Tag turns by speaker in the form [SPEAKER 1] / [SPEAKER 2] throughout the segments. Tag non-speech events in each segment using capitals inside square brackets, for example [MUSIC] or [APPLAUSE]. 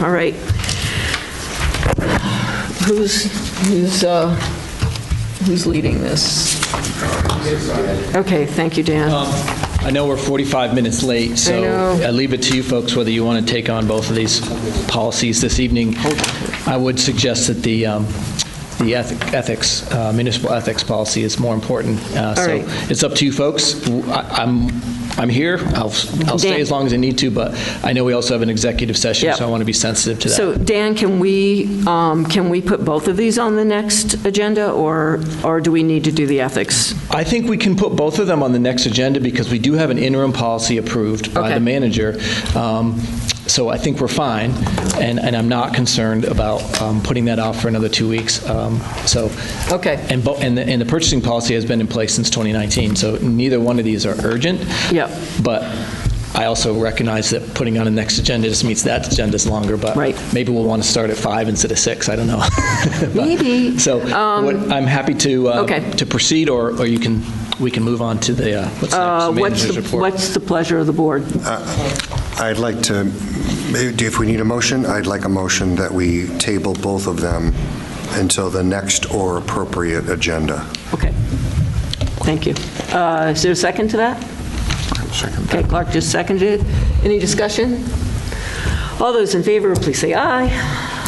[SPEAKER 1] All right. Who's, who's, uh, who's leading this? Okay, thank you, Dan.
[SPEAKER 2] I know we're 45 minutes late, so
[SPEAKER 1] know.
[SPEAKER 2] I leave it to you folks whether you want to take on both of these policies this evening. I would suggest that the um, the eth- ethics, uh, municipal ethics policy is more important. Uh,
[SPEAKER 1] All right.
[SPEAKER 2] So it's up to you folks. W- I- I'm, I'm here, I'll
[SPEAKER 1] Dan.
[SPEAKER 2] I'll stay as long as I need to, but I know we also have an executive session,
[SPEAKER 1] Yep.
[SPEAKER 2] so I want to be sensitive to that.
[SPEAKER 1] So, Dan, can we, um, can we put both of these on the next agenda, or, or do we need to do the ethics?
[SPEAKER 2] I think we can put both of them on the next agenda because we do have an interim policy approved by
[SPEAKER 1] Okay.
[SPEAKER 2] the manager. Um, So I think we're fine, and, and I'm not concerned about um, putting that off for another two weeks. Um, So.
[SPEAKER 1] Okay.
[SPEAKER 2] And, bo- and the, and the purchasing policy has been in place since 2019, so neither one of these are urgent.
[SPEAKER 1] Yep.
[SPEAKER 2] But I also recognize that putting on a next agenda just means that agenda's longer, but.
[SPEAKER 1] Right.
[SPEAKER 2] Maybe we'll want to start at five instead of six, I don't know. [LAUGHS] But-
[SPEAKER 1] Maybe.
[SPEAKER 2] So what- I'm happy to. uh,
[SPEAKER 1] Um, Okay.
[SPEAKER 2] To proceed, or, or you can, we can move on to the, uh, what's
[SPEAKER 1] Uh,
[SPEAKER 2] next,
[SPEAKER 1] What's
[SPEAKER 2] manager's
[SPEAKER 1] the
[SPEAKER 2] report.
[SPEAKER 1] What's the pleasure of the board?
[SPEAKER 3] I'd like to, if we need a motion, I'd like a motion that we table both of them until the next or appropriate agenda.
[SPEAKER 1] Okay, thank you. Uh, Is there a second to that? Okay, Clark just seconded it. Any discussion? All those in favor, please say aye.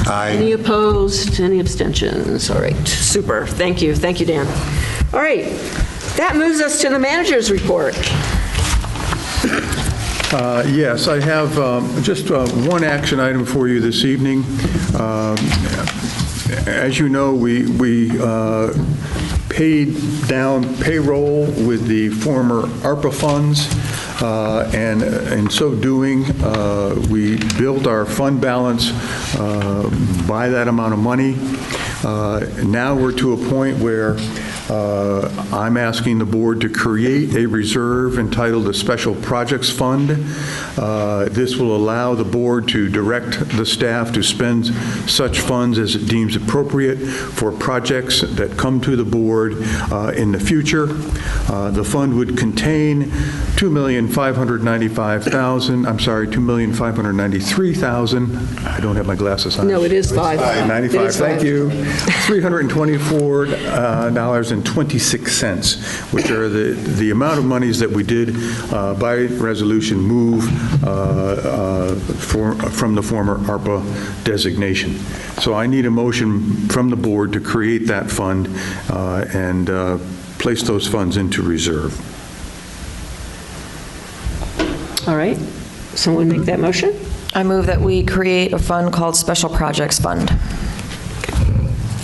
[SPEAKER 3] Aye.
[SPEAKER 1] Any opposed, any abstentions? All right, super, thank you, thank you, Dan. All right, that moves us to the manager's report.
[SPEAKER 4] Uh, Yes, I have um, just uh, one action item for you this evening. Um, As you know, we we uh, paid down payroll with the former ARPA funds, uh, and in so doing, uh, we built our fund balance uh, by that amount of money. Uh, Now we're to a point where uh, I'm asking the board to create a reserve entitled the Special Projects Fund. Uh, This will allow the board to direct the staff to spend such funds as it deems appropriate for projects that come to the board uh, in the future. Uh, The fund would contain $2,595,000, I'm sorry, $2,593,000, I don't have my glasses on.
[SPEAKER 1] No, it is five. It
[SPEAKER 4] 95,
[SPEAKER 1] is
[SPEAKER 4] thank you. $324.26, which are the, the amount of monies that we did uh, by resolution move uh, uh, for- from the former ARPA designation. So I need a motion from the board to create that fund uh, and uh, place those funds into reserve.
[SPEAKER 1] All right, someone make that motion?
[SPEAKER 5] I move that we create a fund called Special Projects Fund.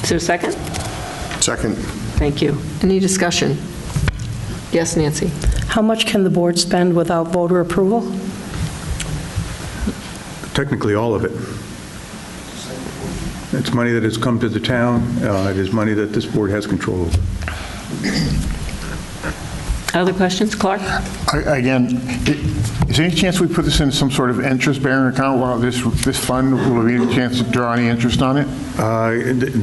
[SPEAKER 1] Is there a second?
[SPEAKER 3] Second,
[SPEAKER 1] Thank you. Any discussion? Yes, Nancy?
[SPEAKER 6] How much can the board spend without voter approval?
[SPEAKER 4] Technically, all of it. It's money that has come to the town. Uh, It is money that this board has control over.
[SPEAKER 1] Other questions? Clark?
[SPEAKER 7] I- Again, i- is there any chance we put this in some sort of interest-bearing account while this, this fund, will there be any chance to draw any interest on it?
[SPEAKER 4] Uh,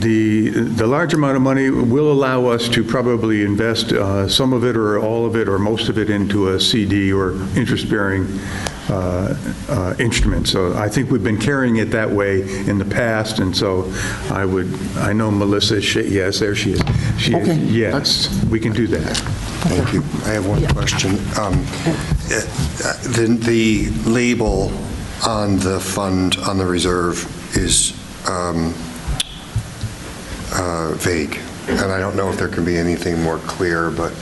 [SPEAKER 4] The, the large amount of money will allow us to probably invest uh, some of it or all of it or most of it into a CD or interest-bearing uh, uh, instrument. So I think we've been carrying it that way in the past, and so I would, I know Melissa, is sh- yes, there she is. She is,
[SPEAKER 7] Okay.
[SPEAKER 4] yes, we can do that.
[SPEAKER 3] thank you. I have one question. Um, eh, The the label on the fund, on the reserve, is um, uh, vague, and I don't know if there can be anything more clear, but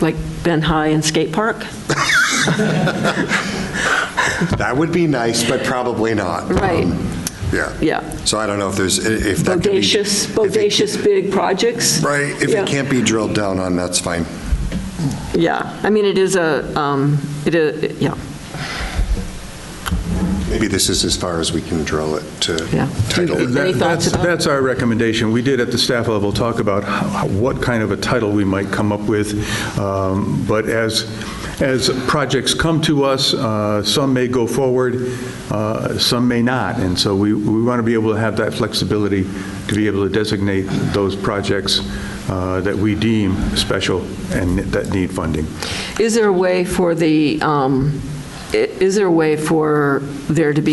[SPEAKER 1] Like Ben High and Skate Park?
[SPEAKER 3] that would be nice, but probably not.
[SPEAKER 1] Right.
[SPEAKER 3] Um, Yeah.
[SPEAKER 1] Yeah.
[SPEAKER 3] So I don't know if there's, if that could be...
[SPEAKER 1] Bodacious,
[SPEAKER 3] if it-
[SPEAKER 1] bodacious big projects?
[SPEAKER 3] Right, if
[SPEAKER 1] Yeah.
[SPEAKER 3] it can't be drilled down on, that's fine.
[SPEAKER 1] Yeah, I mean, it is a, um, it is, yeah,
[SPEAKER 3] Maybe this is as far as we can drill it to
[SPEAKER 1] Yeah.
[SPEAKER 3] title it.
[SPEAKER 1] Any thoughts
[SPEAKER 4] That- that's-
[SPEAKER 1] about-
[SPEAKER 4] That's our recommendation. We did at the staff level talk about how- what kind of a title we might come up with, Um, but as, as projects come to us, uh, some may go forward, uh, some may not, and so we, we want to be able to have that flexibility to be able to designate those projects uh, that we deem special and that need funding.
[SPEAKER 1] Is there a way for the, um, i- is there a way for there to be